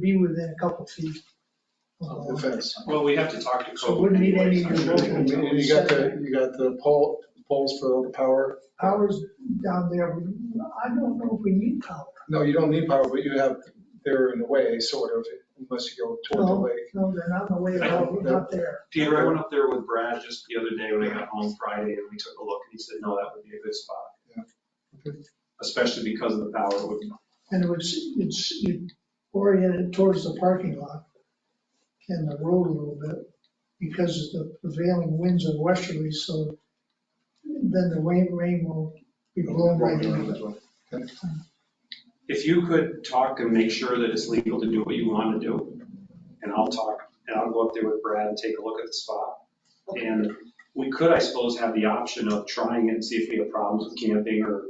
be within a couple feet. Uh, of the the- fence. Well, we have to talk to. So wouldn't need any Coke new anyways. local- And you got the, you got the pole, poles for all the power. Powers down there, we- I don't know if we need power. No, you don't need power, but you have, they're in the way, sort of, unless you go toward the No, lake. no, they're not in the way, I of- don't- not there. Peter, I went up there with Brad just the other day when I got home Friday and we took a look and he said, no, that would be a good spot. Yeah. Okay. Especially because of the power it would And it was, it's you orient it towards the parking lot and the road a little bit because of the prevailing winds are westerly, so then the rain, rain will be blowing right into it. If you could talk and make sure that it's legal to do what you want to do, and I'll talk, and I'll go up there with Brad and take a look at the spot. And we could, I suppose, have the option of trying it and see if we have problems with camping or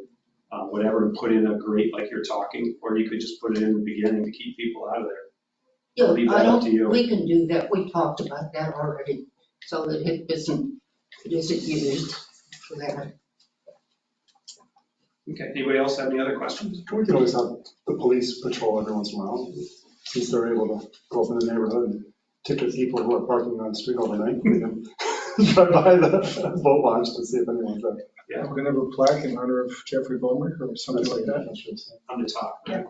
uh, whatever, and put in a grate like you're talking, or you could just put it in the beginning to keep people out of there. Yeah, Leave I that up to don't, you. we can do that, we talked about that already, so that it isn't, it isn't used for that. Okay, anybody else have any other questions? We can always have the police patrol every once in a while, since they're able to go up in the neighborhood and ticket people who are parking on the street overnight. We can Drive by the boat launch to see if anyone's there. Yeah. We're gonna have a plaque in honor of Jeffrey Bowman or something like that. On the top, Yeah.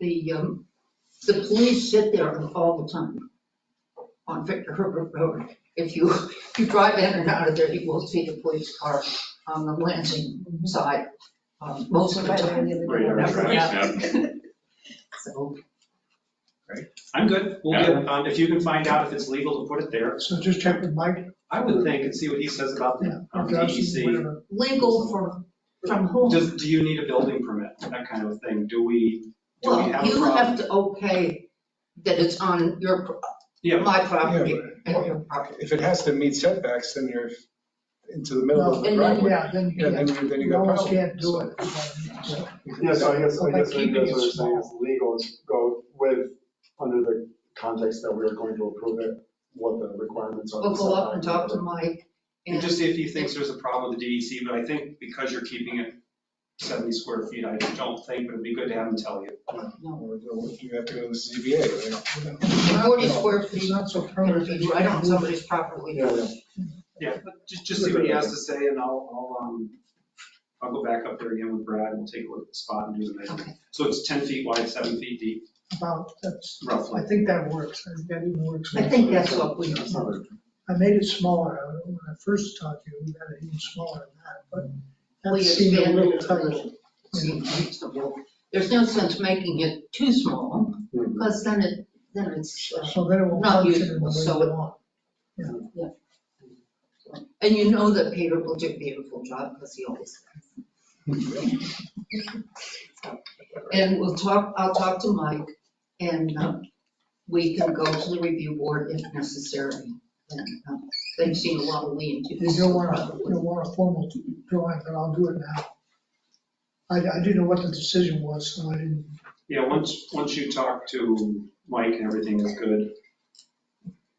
The, um, the police sit there all the time on Victor Herbert Road. If you, if you drive in and out of there, you will see the police car on the Lansing side, um, most of the time. Right, right, Never right. happens. So, I'm good, we'll get, um, if you can find out if it's legal to put it there, So just check with Mike. I would think and see what he says about the um, or Josh, DEC. whatever. legal for, from whom? Does, do you need a building permit, that kind of thing? Do we, do we Well, have a you have problem? to okay that it's on your, pro- Yeah, my property Yeah, but- and your property. If it has to meet setbacks, then you're into the middle of No, the and then- driveway. Yeah, then you Yeah, then can't, you, then you you got almost problems. can't do it. Yeah, so I guess, I guess what you guys Keeping are it small. saying is legal is go with, under the context that we are going to approve it, what the requirements are. We'll go up and talk to Mike and and just see if he thinks there's a problem with the DEC, but I think because you're keeping it 70 square feet, I don't think, but it'd be good to have him tell you. Or You have to go to the ZBA, you know. forty square It's feet, not so I'm permanent. gonna be right on somebody's property. Yeah, yeah. Yeah, but just, just see what he has to say and I'll, I'll, um, I'll go back up there again with Brad and we'll take a look at the spot and do the measurement. Okay. So it's 10 feet wide, 7 feet deep, About, that's, roughly. I think that works, I think that even works. I think that's what we, That's not very- I made it smaller, I- when I first talked to you, we had it even smaller than that, but that we seemed a expanded little it a tight. little. Seems reasonable. There's no sense making it too small, Mhm. because then it, then it's, uh, So then it will Not function in the usable, way so you it- want. and you know that Peter will do a beautiful job, because he always does. And we'll talk, I'll talk to Mike, and uh, we can go to the review board if necessary. And, uh, They've seen a lot of lean to. You don't want a, you don't want a formal drawing, but I'll do it now. I, I didn't know what the decision was, so I didn't, Yeah, once, once you talk to Mike and everything is good,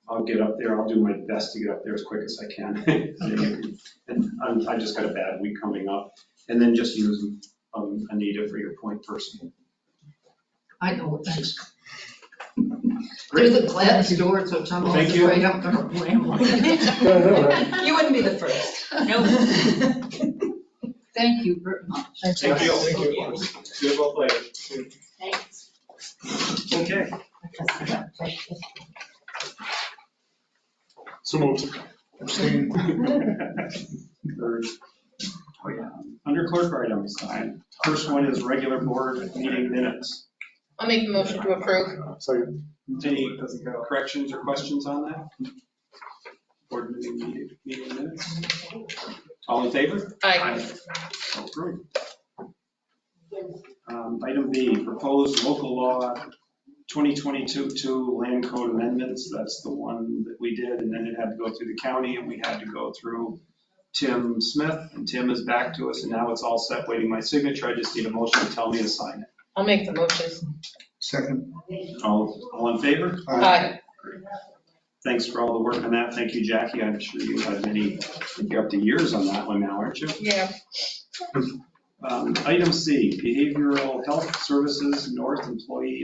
I'll get up there, I'll do my best to get up there as quick as I can. And I'm, I just got a bad week coming up, and then just use um, Anita for your point person. I know what thanks. Through Great, the glass door, so I'm Thank you. afraid I'm gonna blame one. Yeah, I know, right? You wouldn't be the first. No. Thank you very much. Thanks. Thank you. Thank you. good luck later. Thanks. Okay. So moved. Abstain. Third. Oh, yeah. Under clerk items, I, first one is regular board meeting minutes. I'll make the motion to approve. Second. Any corrections or questions on that? Board meeting, meeting- meeting minutes? All in favor? Aye. So approved. Oh, Um, Item B, proposed local law 2022-2 land code amendments. That's the one that we did, and then it had to go through the county, and we had to go through Tim Smith, and Tim is back to us, and now it's all set, waiting my signature. I just need a motion to tell me to sign it. I'll make the motion. Second. All, all in favor? Aye. Thanks for all the work on that. Thank you, Jackie. I'm sure you have many, I think you're up to years on that one now, aren't you? Yeah. Um, Item C, behavioral health services, North Employee